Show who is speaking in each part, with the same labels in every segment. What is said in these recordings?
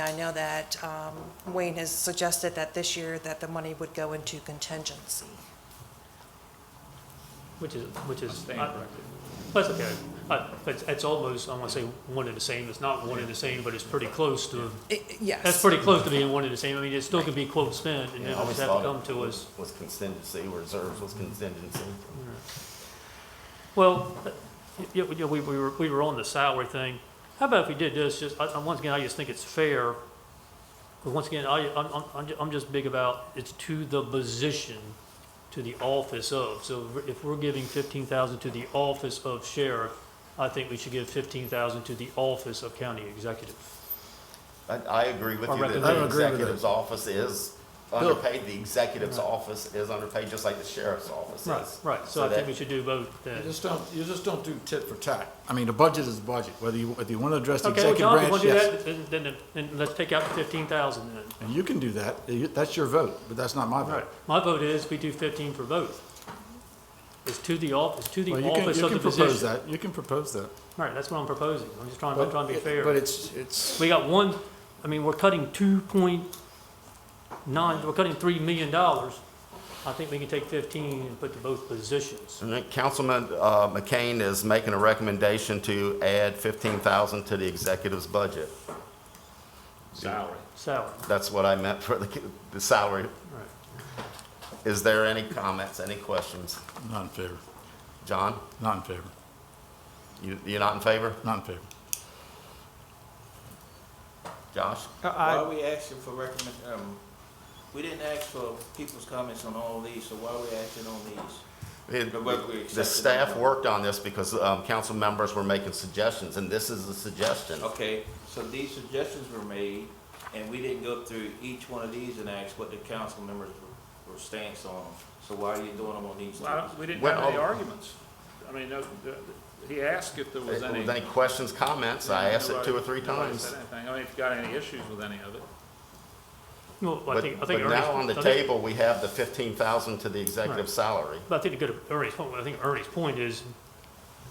Speaker 1: I know that um, Wayne has suggested that this year that the money would go into contingency.
Speaker 2: Which is, which is.
Speaker 3: Stand
Speaker 2: uh,
Speaker 3: corrected.
Speaker 2: That's okay. Uh, But it's almost, I want to say one and the same. It's not one and the same, but it's pretty close to,
Speaker 1: I- I- Yes.
Speaker 2: that's pretty close to being one and the same. I mean, it still could be quote spent and
Speaker 4: Yeah, I
Speaker 2: then always have to
Speaker 4: thought
Speaker 2: come
Speaker 4: it
Speaker 2: to us.
Speaker 4: Was contingency, reserves was contingency.
Speaker 2: Well, uh, y- y- you know, we, we were, we were on the salary thing. How about if we did this, just, I, I- once again, I just think it's fair. But once again, I, I'm, I'm- I'm, ju- I'm just big about, it's to the position, to the office of. So if we're giving fifteen thousand to the office of sheriff, I think we should give fifteen thousand to the office of county executive.
Speaker 4: I, I agree with
Speaker 2: I
Speaker 4: you that
Speaker 2: reckon- I agree
Speaker 4: the
Speaker 5: with that.
Speaker 4: executive's office is
Speaker 2: Bill.
Speaker 4: underpaid, the executive's office is underpaid, just like the sheriff's office
Speaker 2: Right,
Speaker 4: is.
Speaker 2: right, so I
Speaker 4: that-
Speaker 2: think we should do both then.
Speaker 5: You just don't, you just don't do tit for tat. I mean, the budget is the budget, whether you, whether you want to address the
Speaker 2: Okay, well,
Speaker 5: executive
Speaker 2: John, if you
Speaker 5: branch,
Speaker 2: want to do
Speaker 5: yes.
Speaker 2: that, then, then, then let's take out the fifteen thousand then.
Speaker 5: And you can do that, You- that's your vote, but that's not my
Speaker 2: Right,
Speaker 5: vote.
Speaker 2: my vote is we do fifteen for both. It's to the office, to the
Speaker 5: Well, you can,
Speaker 2: office
Speaker 5: you
Speaker 2: of the
Speaker 5: can propose
Speaker 2: position.
Speaker 5: that, you can propose that.
Speaker 2: Right, that's what I'm proposing, I'm just trying, I'm trying to be
Speaker 5: But- But
Speaker 2: fair.
Speaker 5: it's, it's,
Speaker 2: We got one, I mean, we're cutting two point nine, we're cutting three million dollars. I think we can take fifteen and put to both positions.
Speaker 4: And then Councilman, uh, McCain is making a recommendation to add fifteen thousand to the executive's budget.
Speaker 3: Salary.
Speaker 2: Salary,
Speaker 4: That's what I meant for the, the salary.
Speaker 2: right.
Speaker 4: Is there any comments, any questions?
Speaker 5: not in favor,
Speaker 4: John,
Speaker 5: not in favor,
Speaker 4: you, you're not in favor?
Speaker 5: not in favor.
Speaker 4: Josh?
Speaker 6: Why are we asking for recommend, um, we didn't ask for people's comments on all these, so why are we acting on these?
Speaker 4: It-
Speaker 6: But whether we accept it
Speaker 4: The
Speaker 6: or
Speaker 4: staff
Speaker 6: not.
Speaker 4: worked on this because um, council members were making suggestions, and this is a suggestion.
Speaker 6: Okay, so these suggestions were made, and we didn't go through each one of these and ask what the council members were, were stance on. So why are you doing them on these
Speaker 3: Well,
Speaker 6: two?
Speaker 3: we didn't
Speaker 4: Well,
Speaker 3: have any
Speaker 4: I'll-
Speaker 3: arguments. I mean, no, the- he asked if there
Speaker 4: If
Speaker 3: was any.
Speaker 4: there's any questions, comments, I asked it two or three
Speaker 3: Nobody- nobody
Speaker 4: times.
Speaker 3: said anything. I mean, if you got any issues with any of it.
Speaker 2: Well, I
Speaker 4: But
Speaker 2: think, I
Speaker 4: but
Speaker 2: think. Ernie's-
Speaker 4: now on the
Speaker 2: I think-
Speaker 4: table, we have the fifteen thousand to the executive
Speaker 2: Right.
Speaker 4: salary.
Speaker 2: But I think to go to Ernie's point, I think Ernie's point is,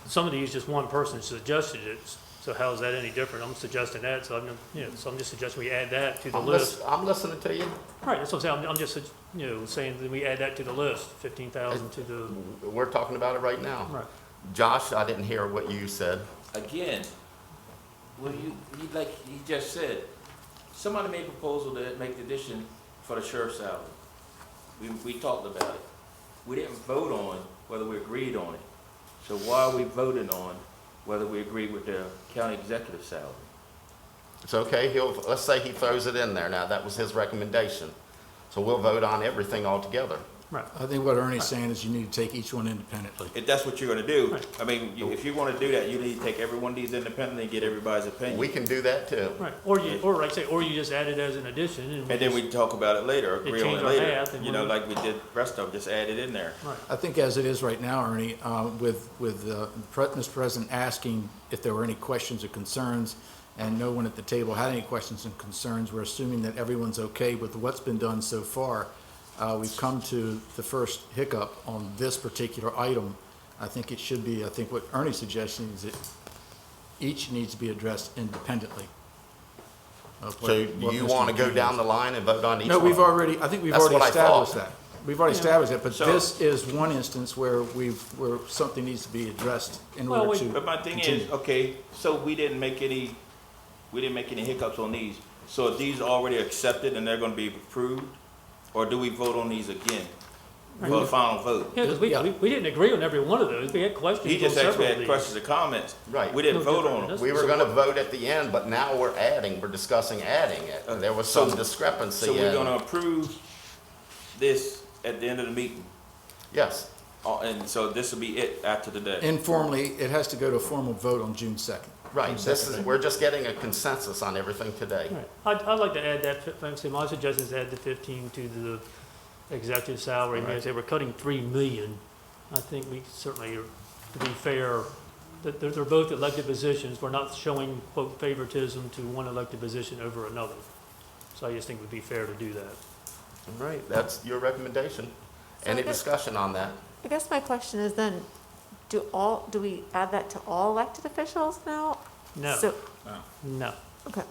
Speaker 2: some of these, just one person suggested it, so how is that any different? I'm suggesting that, so I'm, you know, so I'm just suggesting we add that to the
Speaker 4: I'm
Speaker 2: list.
Speaker 4: lis- I'm listening to you.
Speaker 2: Right, that's what I'm saying, I'm- I'm just, you know, saying that we add that to the list, fifteen thousand to the,
Speaker 4: We're talking about it right now.
Speaker 2: right.
Speaker 4: Josh, I didn't hear what you said.
Speaker 6: Again, well, you, you, like you just said, somebody made a proposal to make the addition for the sheriff's salary. We, we talked about it. We didn't vote on whether we agreed on it. So why are we voting on whether we agree with the county executive salary?
Speaker 4: It's okay, he'll, let's say he throws it in there now, that was his recommendation. So we'll vote on everything altogether.
Speaker 5: I think what Ernie's saying is you need to take each one independently.
Speaker 6: If that's what you're gonna do, I mean, you- if you wanna do that, you need to take every one of these independently and get everybody's
Speaker 4: We
Speaker 6: opinion.
Speaker 4: can do that too.
Speaker 2: Right, or you, or like I say, or you just add it as an addition and.
Speaker 6: And then we talk about it later, agree on
Speaker 2: change
Speaker 6: it
Speaker 2: our
Speaker 6: later,
Speaker 2: math and
Speaker 6: you
Speaker 2: we'll-
Speaker 6: know, like we did the rest of them, just add it in there.
Speaker 5: I think as it is right now, Ernie, uh, with, with uh, Pre- Mr. President asking if there were any questions or concerns, and no one at the table had any questions and concerns, we're assuming that everyone's okay with what's been done so far. Uh, We've come to the first hiccup on this particular item. I think it should be, I think what Ernie's suggesting is that each needs to be addressed independently. of what-
Speaker 4: So
Speaker 5: what
Speaker 4: you
Speaker 5: Mr.
Speaker 4: want to go
Speaker 5: McKeon
Speaker 4: down
Speaker 5: is.
Speaker 4: the line and vote on each
Speaker 5: No,
Speaker 4: one?
Speaker 5: we've already, I think we've
Speaker 4: That's
Speaker 5: already
Speaker 4: what I thought.
Speaker 5: established that. We've already established that, but
Speaker 6: So-
Speaker 5: this is one instance where we've, where something needs to be addressed in
Speaker 2: Well,
Speaker 5: order
Speaker 2: we-
Speaker 5: to.
Speaker 6: But my thing
Speaker 5: continue.
Speaker 6: is, okay, so we didn't make any, we didn't make any hiccups on these. So are these already accepted and they're gonna be approved? Or do we vote on these again for a final vote?
Speaker 2: Yeah, because we,
Speaker 5: Yeah.
Speaker 2: we, we didn't agree on every one of those, we had questions
Speaker 6: He
Speaker 2: on
Speaker 6: just
Speaker 2: several
Speaker 6: actually
Speaker 2: of
Speaker 6: had
Speaker 2: these.
Speaker 6: questions and comments.
Speaker 4: Right.
Speaker 6: We didn't
Speaker 2: No
Speaker 6: vote
Speaker 2: different
Speaker 6: on
Speaker 2: than
Speaker 6: them.
Speaker 4: We were gonna vote at the end, but now we're adding, we're discussing adding it. There was some
Speaker 6: So-
Speaker 4: discrepancy
Speaker 6: So we're
Speaker 4: in-
Speaker 6: gonna approve this at the end of the meeting.
Speaker 4: Yes,
Speaker 6: Uh, And so this will be it after the day.
Speaker 5: Informally, it has to go to a formal vote on June second.
Speaker 4: right, this is, we're just getting a consensus on everything today.
Speaker 2: Right. I'd, I'd like to add that, fi- like I said, my suggestion is add the fifteen to the executive salary. I mean, I say we're cutting three million. I think we certainly, are- to be fair, that they're, they're both elected positions. We're not showing quote favoritism to one elected position over another. So I just think it would be fair to do that.
Speaker 4: Right, that's your recommendation.
Speaker 7: So
Speaker 4: Any
Speaker 7: I guess-
Speaker 4: discussion on that?
Speaker 7: I guess my question is then, do all, do we add that to all elected officials now?
Speaker 2: No,
Speaker 7: So,
Speaker 2: no.
Speaker 7: okay,